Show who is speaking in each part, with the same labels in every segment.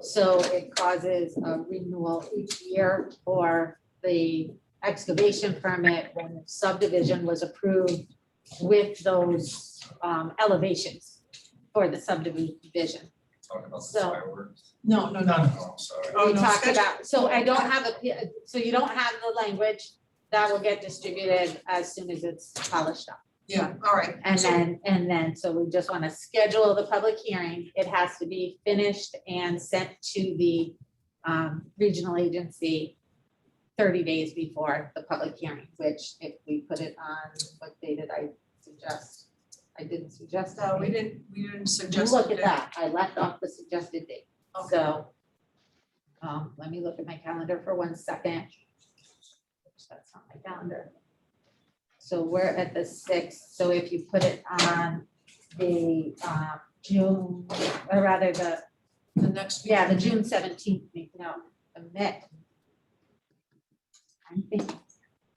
Speaker 1: So it causes a renewal each year for the excavation permit when subdivision was approved with those um, elevations for the subdivision.
Speaker 2: Talking about the
Speaker 1: So-
Speaker 2: fireworks.
Speaker 3: No,
Speaker 2: No,
Speaker 3: no, no.
Speaker 2: no, I'm sorry.
Speaker 3: Oh,
Speaker 1: We
Speaker 3: no,
Speaker 1: talked
Speaker 3: sketch-
Speaker 1: about, so I don't have a, so you don't have the language that will get distributed as soon as it's polished up.
Speaker 3: Yeah, all right.
Speaker 1: And
Speaker 3: So-
Speaker 1: then, and then, so we just want to schedule the public hearing. It has to be finished and sent to the um, regional agency thirty days before the public hearing, which if we put it on, what day did I suggest? I didn't suggest oh,
Speaker 3: No,
Speaker 1: that.
Speaker 3: we didn't, we didn't suggest.
Speaker 1: Look at
Speaker 3: it.
Speaker 1: that. I left off the suggested date.
Speaker 3: Okay.
Speaker 1: So, um, let me look at my calendar for one second. That's not my calendar. So we're at the sixth, so if you put it on the, um, June, or rather the,
Speaker 3: The next.
Speaker 1: yeah, the June seventeenth, no, the Met. I think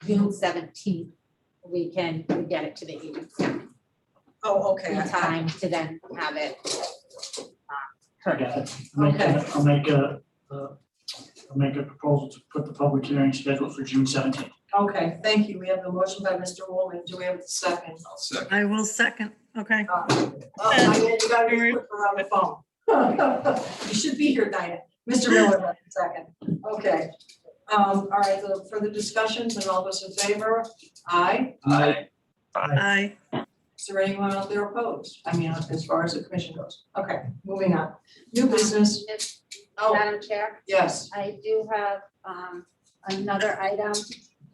Speaker 1: June seventeenth, we can get it to the agency in
Speaker 3: Oh, okay. I-
Speaker 1: time to then have it. uh, heard.
Speaker 4: Yeah, I'll make
Speaker 3: Okay.
Speaker 4: a, I'll make a, uh, I'll make a proposal to put the public hearing scheduled for June seventeenth.
Speaker 3: Okay, thank you. We have the motion by Mr. Woolman. Do we have a second?
Speaker 2: I'll second.
Speaker 5: I will second, okay.
Speaker 3: Uh, Oh, I mean, you gotta be quick around the phone. You should be here, Dinah. Mr. Miller, that's the second. Okay. Um, all right, so further discussions and all those in favor? Aye.
Speaker 2: Aye.
Speaker 5: I,
Speaker 3: Is there anyone out there opposed? I mean, as far as the commission goes. Okay, moving on. New business. Oh,
Speaker 1: Madam Chair?
Speaker 3: yes.
Speaker 1: I do have um another item,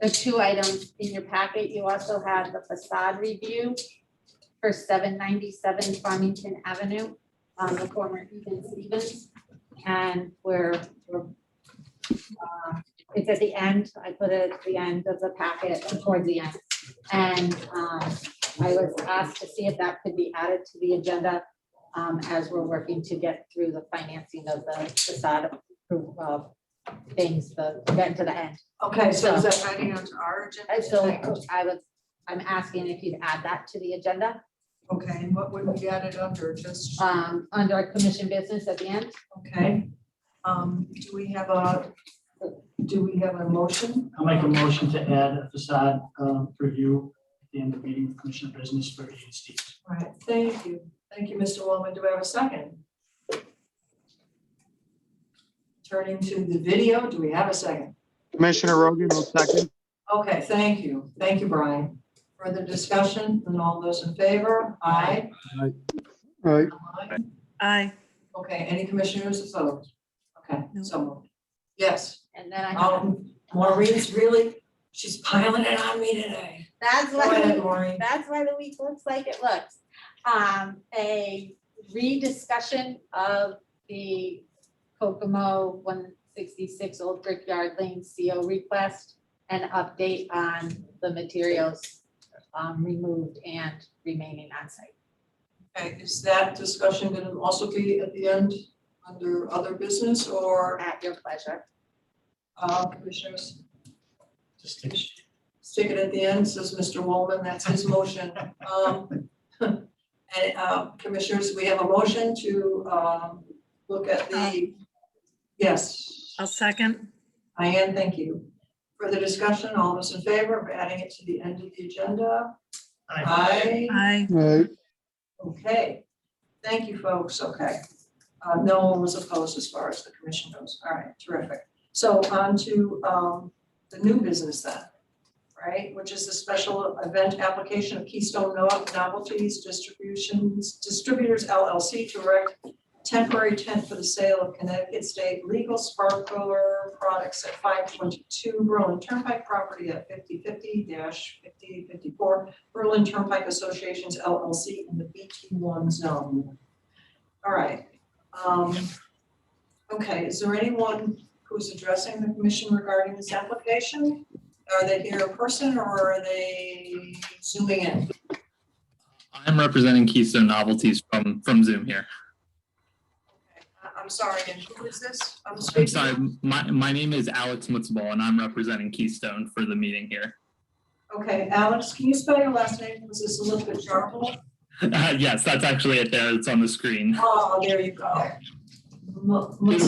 Speaker 1: the two items in your packet. You also have the facade review for seven ninety-seven Farmington Avenue, um, the former Eaton Stevens. And we're, we're, uh, it's at the end, I put it at the end of the packet, towards the end. And, um, I was asked to see if that could be added to the agenda, um, as we're working to get through the financing of the facade approval of things, the, get to the end.
Speaker 3: Okay, so is that adding on to our
Speaker 1: And
Speaker 3: agenda?
Speaker 1: so I was, I'm asking if you'd add that to the agenda,
Speaker 3: Okay, and what would we add it under? Just,
Speaker 1: um, under our commission business at the end.
Speaker 3: okay. Um, do we have a, do we have a motion?
Speaker 4: I'll make a motion to add a facade, um, review at the end of meeting with Commissioner Business for E Ian Stevens.
Speaker 3: All right, thank you. Thank you, Mr. Wellman. Do I have a second? Turning to the video, do we have a second?
Speaker 6: Commissioner Rogan will second.
Speaker 3: Okay, thank you. Thank you, Brian. Further discussion and all those in favor? Aye.
Speaker 6: Aye.
Speaker 3: Aye.
Speaker 5: I,
Speaker 3: Okay, any commissioners opposed? Okay,
Speaker 5: No.
Speaker 3: so moved. Yes.
Speaker 1: And then I have,
Speaker 3: Um, Maureen's really, she's piling it on me today.
Speaker 1: that's
Speaker 3: Go
Speaker 1: what.
Speaker 3: ahead, Maureen.
Speaker 1: That's why the week looks like it looks. Um, a rediscussion of the Kokomo one sixty-six Old Brickyard Lane CO request and update on the materials um, removed and remaining on site.
Speaker 3: Okay, is that discussion gonna also be at the end under other business or,
Speaker 1: At your pleasure.
Speaker 3: uh, commissioners?
Speaker 4: Just take-
Speaker 3: Stick it at the end, says Mr. Wallman, that's his motion. Um, And, uh, commissioners, we have a motion to, um, look at the, yes.
Speaker 5: I'll second,
Speaker 3: Diane, thank you. Further discussion, all those in favor of adding it to the end of the agenda?
Speaker 4: Aye.
Speaker 3: Aye.
Speaker 5: I,
Speaker 6: Aye.
Speaker 3: Okay, thank you, folks, okay. Uh, no one was opposed as far as the commission goes, all right, terrific. So on to, um, the new business then, right, which is the special event application of Keystone No- Novelties Distributions, Distributors LLC to erect temporary tent for the sale of Connecticut State legal sparkler products at five twenty-two Berlin Turnpike property at fifty fifty fifty fifty-four Berlin Turnpike Associations LLC in the BT one zone. All right. um, Okay, is there anyone who's addressing the commission regarding this application? Are they here in person or are they zooming in?
Speaker 7: I'm representing Keystone Novelties from from Zoom here.
Speaker 3: I- I'm sorry, and who is this? I'm
Speaker 7: I'm
Speaker 3: speaking-
Speaker 7: sorry, my my name is Alex Mutzball and I'm representing Keystone for the meeting here.
Speaker 3: Okay, Alex, can you spell your last name? Was this Elizabeth Jarble?
Speaker 7: Uh,
Speaker 3: Ah,
Speaker 7: yes, that's actually it there. It's on the screen.
Speaker 3: Oh, there you go. Mu- mu-